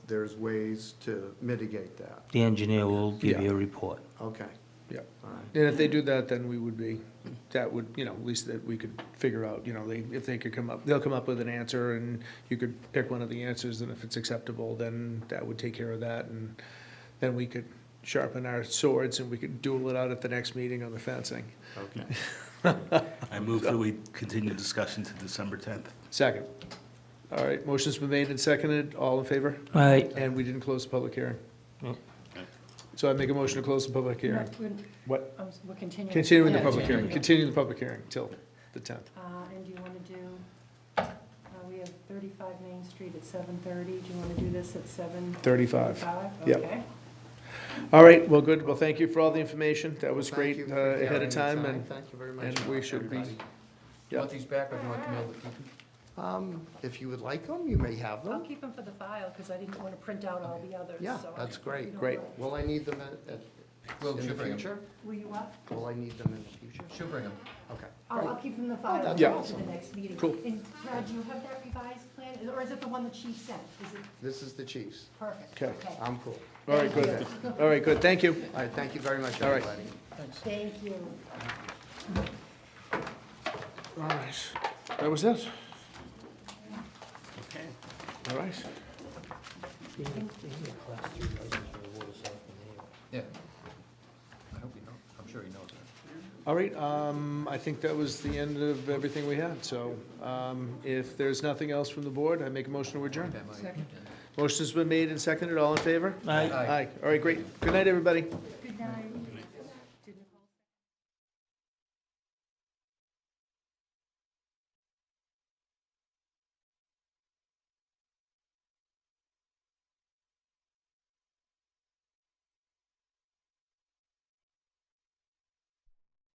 there's ways to mitigate that. The engineer will give you Yeah. a report. Okay, Yeah. all right, And if they do that, then we would be, that would, you know, at least that we could figure out, you know, they, if they could come up, they'll come up with an answer and you could pick one of the answers and if it's acceptable, then that would take care of that and then we could sharpen our swords and we could duel it out at the next meeting on the fencing. okay. I move that we continue discussion to December 10th. Second. All right, motion's been made and seconded, all in favor? All right, And we didn't close the public hearing. Nope. So I make a motion to close the public No, hearing. We're What? oh, so we're continuing. Continuing the Yeah, public hearing, yeah. continue the public hearing till the tenth. Uh, And do you want to do, uh, we have 35 Main Street at 7:30. Do you want to do this at 7:35? Thirty-five. Yep. Okay. All right, well, good. Well, thank you for all the information. That was Thank you great uh, for ahead taking of the time and, Thank you very much. and we should be, everybody. You want these back or do you want Camille to keep them? Um, if you would like them, you may have I'll them. keep them for the file because I didn't want to print out all the others. Yeah, so I- that's great. we don't Great. know. Will I need them at, at, Will, in she'll the bring 'em. future? Will you up? Will I need them in the future? She'll bring them. Okay. I'll, I'll keep them in the file Oh, that's until awesome. the next meeting. Cool. And Brad, do you have that revised plan Is- or is it the one the chief sent? Is it This is the Chiefs. perfect? Okay. I'm cool. all right, good. All right, good. Thank you. All right, thank you very much, All right. everybody. Thank you. All right. That was it. Okay. All right. Yeah. I hope you know, I'm sure he knows that. All right, um, I think that was the end of everything we had. So, um, if there's nothing else from the board, I make a motion to adjourn. That might- Motion's been made and seconded. All in favor? Aye. Aye. Aye. All right, great. Good night, everybody. Good night.